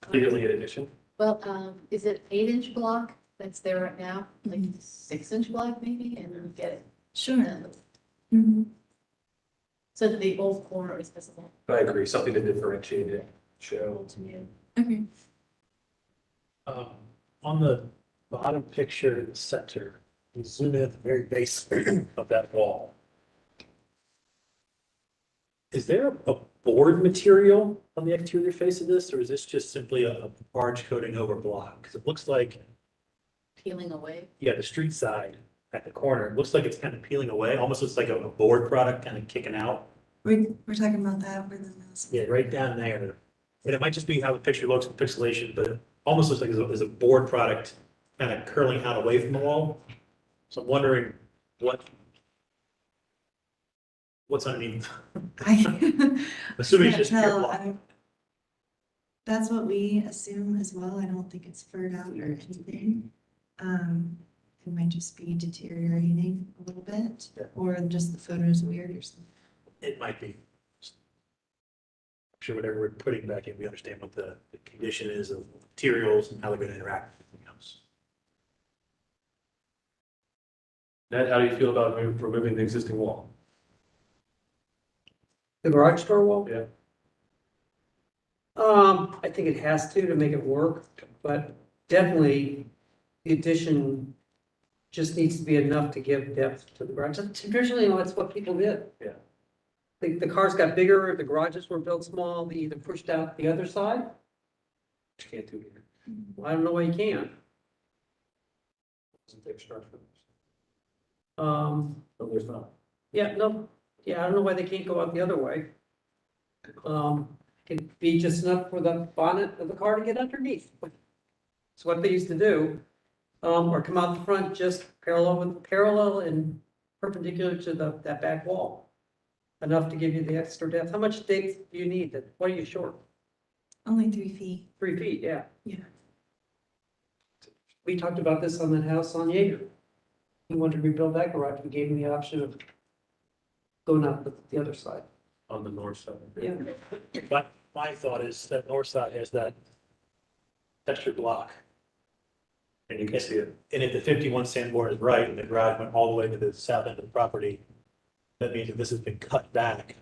clearly an addition. Well, um, is it eight inch block that's there right now, like Mm-hmm. six inch block maybe, and then get it? Sure. done. Mm-hmm. So that the old corner is visible But I agree, something to differentiate it, show. to you. Okay. Um, on the bottom picture in the center, you zoom in at the very base of that wall. Is there a board material on the exterior face of this, or is this just simply a a barge coating over block? Because it looks like, peeling away. yeah, the street side at the corner, it looks like it's kind of peeling away, almost looks like a a board product kind of kicking out. We, we're talking about that over the last. Yeah, right down there. And it might just be how the picture looks with pixelation, but it almost looks like it's a, it's a board product kind of curling out away from the wall. So I'm wondering what what's underneath, I assuming it's can't just pure tell. I block. don't- That's what we assume as well. I don't think it's furred out or anything. Um, it might just be deteriorating a little bit, Yeah. or just the photo's weird or something. It might be. I'm sure whatever we're putting back in, we understand what the, the condition is of materials and how they're gonna interact with everything else. Ned, how do you feel about remo- removing the existing wall? The garage door wall? Yeah. Um, I think it has to, to make it work, but definitely the addition just needs to be enough to give depth to the garage. That's Traditionally, that's what people did. Yeah. The, the cars got bigger, the garages were built small, they either pushed out the other side. Which you can't do here. Well, I don't know why you can't. Isn't there structure? Um, No, there's not. yeah, no, yeah, I don't know why they can't go out the other way. Um, it'd be just enough for the bonnet of the car to get underneath. It's what they used to do. Um, or come out the front just parallel with, parallel and perpendicular to the, that back wall. Enough to give you the extra depth. How much depth do you need? That- What are you short? Only three feet. Three feet, yeah. Yeah. We talked about this on that house on Jaeger. He wanted to rebuild that garage. We gave him the option of going out the, the other side. On the north side. Yeah. But my thought is that north side has that texture block. And you can see it. And if the fifty-one sandboard is right and the garage went all the way to the south end of the property, that means that this has been cut back,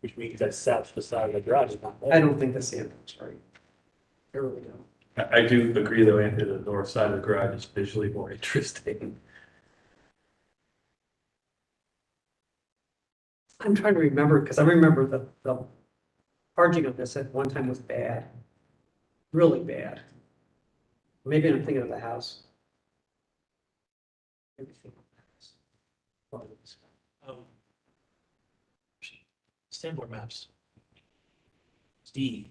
which means that south facade of the garage is not I there. don't think the sample's right. I really don't. I, I do agree though, Anthony, the north side of the garage is visually more interesting. I'm trying to remember, because I remember the, the parging of this at one time was bad, really bad. Maybe I'm thinking of the house. Maybe thinking of the house. Um, Sandboard maps. It's D.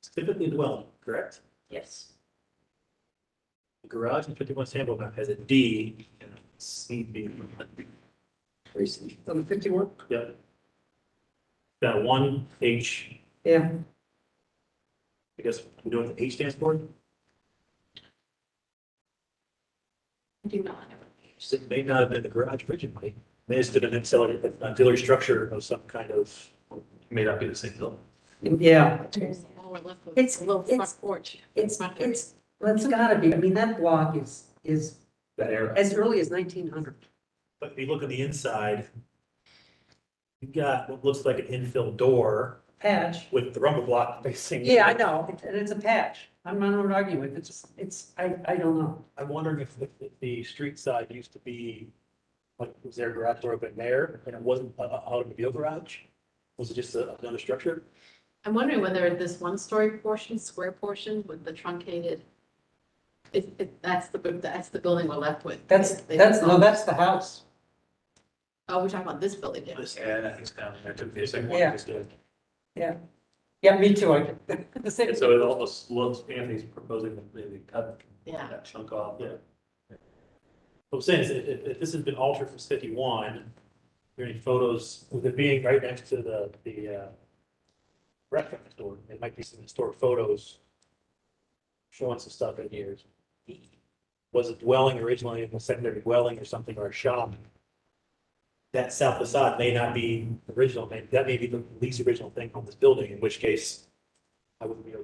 It's typically a dwelling, correct? Yes. The garage and fifty-one sandboard map has a D and a C B. On the fifty-one? Yep. Got one H, Yeah, I guess, we know what the H stands for? I do not have So It may not have been the garage originally, may have been an auxiliary, an auxiliary structure of some kind of, May not be the same building. yeah, There's all we're left with It's- is a little it's- front porch. it's, Front porch. it's, well, it's gotta be, I mean, that block is, is That era. as early as nineteen hundred. but if you look on the inside, you've got what looks like an infill door Patch. with the rumble block facing. Yeah, I know, It's- and it's a patch. I'm not arguing with it, it's, it's, I, I don't know. I'm wondering if, if the- the street side used to be, like, was there a garage door open there and it wasn't an automobile garage? Was it just a- another structure? I'm wondering whether this one-story portion, square portion with the truncated, if, if that's the, bu- that's the building we're left with. That's, They- that's, no, that's the house. Oh, we're talking about this building, yeah. This- Yeah, that is down there. Took me a second. Yeah. Yeah, me too, I, the same. And so it almost looks, Anthony's proposing that they cut Yeah. that chunk off. Yeah. What I'm saying is, if, if- if this has been altered from fifty-one, are there any photos with it being right next to the, the, uh, restaurant store, there might be some historic photos showing some stuff in here. Was a dwelling originally, a secondary dwelling or something, or a shop? That south facade may not be original, may- that may be the least original thing on this building, in which case I wouldn't be